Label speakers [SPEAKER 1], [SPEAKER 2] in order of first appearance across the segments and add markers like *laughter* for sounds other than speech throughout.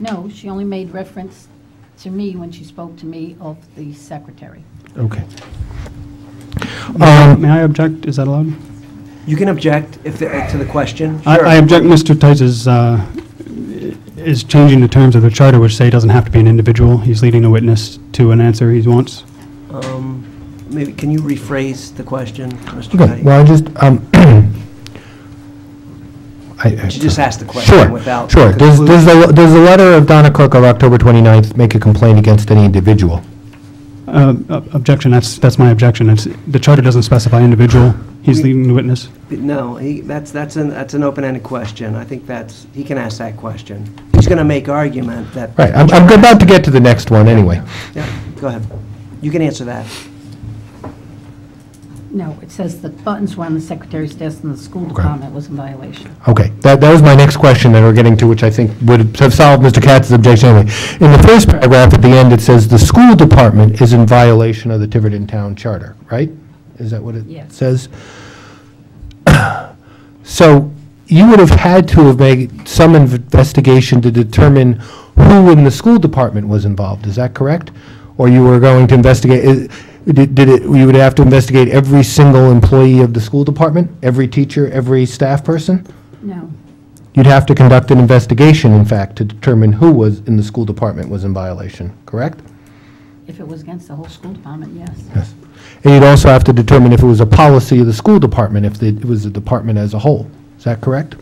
[SPEAKER 1] No, she only made reference to me when she spoke to me of the secretary.
[SPEAKER 2] Okay.
[SPEAKER 3] May I-
[SPEAKER 2] Um,
[SPEAKER 3] may I object? Is that allowed?
[SPEAKER 4] You can object if, the- to the question.
[SPEAKER 3] I-
[SPEAKER 4] Sure.
[SPEAKER 3] I object Mr. Tice's, uh, is changing the terms of the charter, which say it doesn't have to be an individual. He's leading a witness to an answer he wants.
[SPEAKER 4] Um, Maybe, can you rephrase the question, Mr.
[SPEAKER 2] Okay,
[SPEAKER 4] Knight?
[SPEAKER 2] well, I just, um, *clears throat* I... I-
[SPEAKER 4] You just asked the question
[SPEAKER 2] Sure,
[SPEAKER 4] without
[SPEAKER 2] Sure, does, does the, does the letter of Donna Cook of October 29th make a complaint against any individual?
[SPEAKER 3] Uh, ob- Objection, that's, that's my objection. It's- The charter doesn't specify individual. He's leading the witness.
[SPEAKER 4] No, he, that's, that's an, that's an open-ended question. I think that's, he can ask that question. He's going to make argument that.
[SPEAKER 2] Right, I'm, I'm about to get to the next one, anyway.
[SPEAKER 4] Yeah, go ahead. You can answer that.
[SPEAKER 1] No, it says the buttons were on the secretary's desk and the school department was in violation.
[SPEAKER 2] Okay, that, that was my next question that we're getting to, which I think would have solved Mr. Katz's objection anyway. In the first paragraph at the end, it says, "The school department is in violation of the Tiverton Town Charter," right? Is that what
[SPEAKER 1] Yes.
[SPEAKER 2] it says? *clears throat* So you would have had to have made some investigation to determine who in the school department was involved, is that correct? Or you were going to investigate, i- did did it, you would have to investigate every single employee of the school department? Every teacher, every staff person?
[SPEAKER 1] No,
[SPEAKER 2] You'd have to conduct an investigation, in fact, to determine who was in the school department was in violation, correct?
[SPEAKER 1] if it was against the whole school department, yes.
[SPEAKER 2] Yes. And you'd also have to determine if it was a policy of the school department, if it was the department as a whole. Is that correct?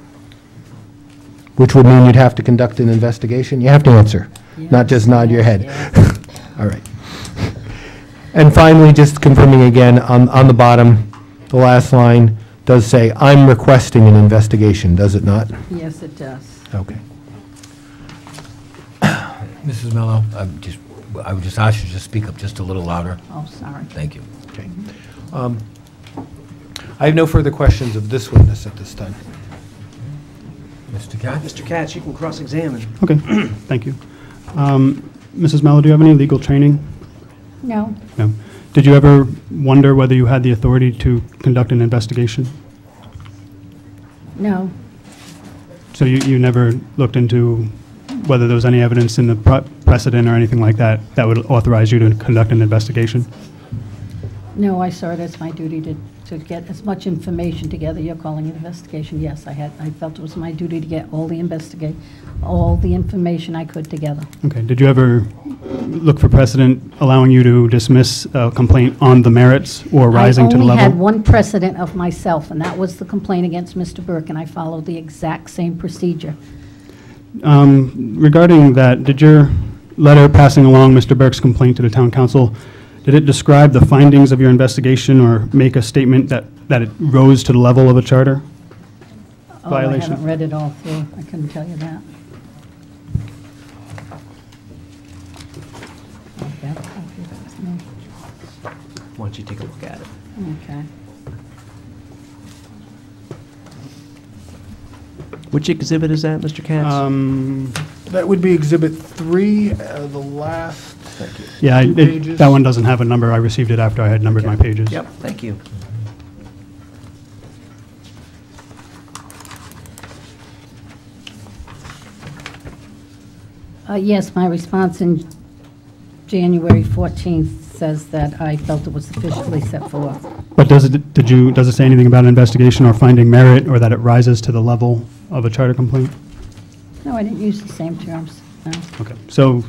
[SPEAKER 2] Which would mean you'd have to conduct an investigation. You have to answer, not just nod your head. All right. *laughs* And finally, just confirming again, on, on the bottom, the last line does say, "I'm requesting an investigation," does it not?
[SPEAKER 1] Yes, it does.
[SPEAKER 2] Okay.
[SPEAKER 5] *coughs* Mrs. Mello, I'm just, I would just ask you to just speak up just a little louder.
[SPEAKER 1] Oh, sorry.
[SPEAKER 5] Thank you.
[SPEAKER 2] Okay. Um, I have no further questions of this witness at this time.
[SPEAKER 5] Mr. Katz?
[SPEAKER 4] Mr. Katz, you can cross-examine.
[SPEAKER 2] *clears throat*
[SPEAKER 3] Okay, thank you. Um, Mrs. Mello, do you have any legal training?
[SPEAKER 1] No,
[SPEAKER 3] No. Did you ever wonder whether you had the authority to conduct an investigation?
[SPEAKER 1] no,
[SPEAKER 3] So you, you never looked into whether there was any evidence in the pre- precedent or anything like that that would authorize you to conduct an investigation?
[SPEAKER 1] no, I saw it as my duty to, to get as much information together. You're calling it investigation. Yes, I had, I felt it was my duty to get all the investigate, all the information I could together.
[SPEAKER 3] Okay, did you ever look for precedent allowing you to dismiss a complaint on the merits or rising to the
[SPEAKER 1] I only had
[SPEAKER 3] level?
[SPEAKER 1] one precedent of myself, and that was the complaint against Mr. Burke, and I followed the exact same procedure. Oh,
[SPEAKER 3] Um, Regarding that, did your letter passing along Mr. Burke's complaint to the town council, did it describe the findings of your investigation or make a statement that, that it rose to the level of a charter?
[SPEAKER 1] Oh, I
[SPEAKER 3] Violation.
[SPEAKER 1] haven't read it all through. I couldn't tell you that. Oh, that copy, that's me.
[SPEAKER 4] Why don't you take a look at it?
[SPEAKER 1] Okay.
[SPEAKER 4] Which exhibit is that, Mr. Katz?
[SPEAKER 3] Um,
[SPEAKER 2] That would be Exhibit 3, uh, the last, thank you.
[SPEAKER 3] Yeah, I-
[SPEAKER 2] Two
[SPEAKER 3] it-
[SPEAKER 2] pages.
[SPEAKER 3] that one doesn't have a number. I received it after I had numbered my pages.
[SPEAKER 4] Yep, thank you.
[SPEAKER 1] Uh, Yes, my response in January 14th says that I felt it was sufficiently set forth.
[SPEAKER 3] But does it, did you, does it say anything about an investigation or finding merit, or that it rises to the level of a charter complaint?
[SPEAKER 1] No, I didn't use the same terms, no.
[SPEAKER 3] Okay, so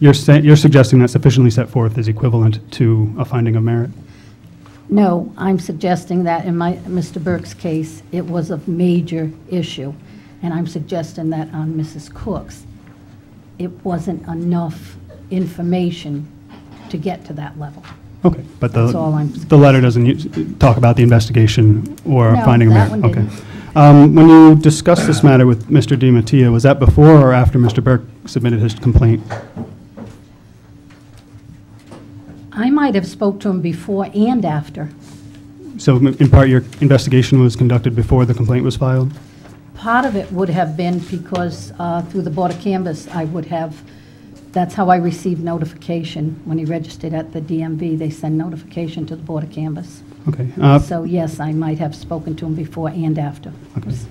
[SPEAKER 3] you're saying, you're suggesting that sufficiently set forth is equivalent to a finding of merit?
[SPEAKER 1] No, I'm suggesting that in my, Mr. Burke's case, it was a major issue, and I'm suggesting that on Mrs. Cook's, it wasn't enough information to get to that level.
[SPEAKER 3] Okay, but the,
[SPEAKER 1] That's all I'm-
[SPEAKER 3] the letter doesn't u- talk about the investigation or
[SPEAKER 1] No,
[SPEAKER 3] finding of
[SPEAKER 1] that
[SPEAKER 3] merit?
[SPEAKER 1] one
[SPEAKER 3] Okay.
[SPEAKER 1] didn't.
[SPEAKER 3] Um, When you discussed this matter with Mr. Di Mattia, was that before or after Mr. Burke submitted his complaint?
[SPEAKER 1] I might have spoke to him before and after,
[SPEAKER 3] So m- in part, your investigation was conducted before the complaint was filed?
[SPEAKER 1] Part of it would have been because uh, through the Board of Canvas, I would have, that's how I received notification. When he registered at the DMV, they send notification to the Board of Canvas.
[SPEAKER 3] Okay. uh,
[SPEAKER 1] So yes, I might have spoken to him before and after.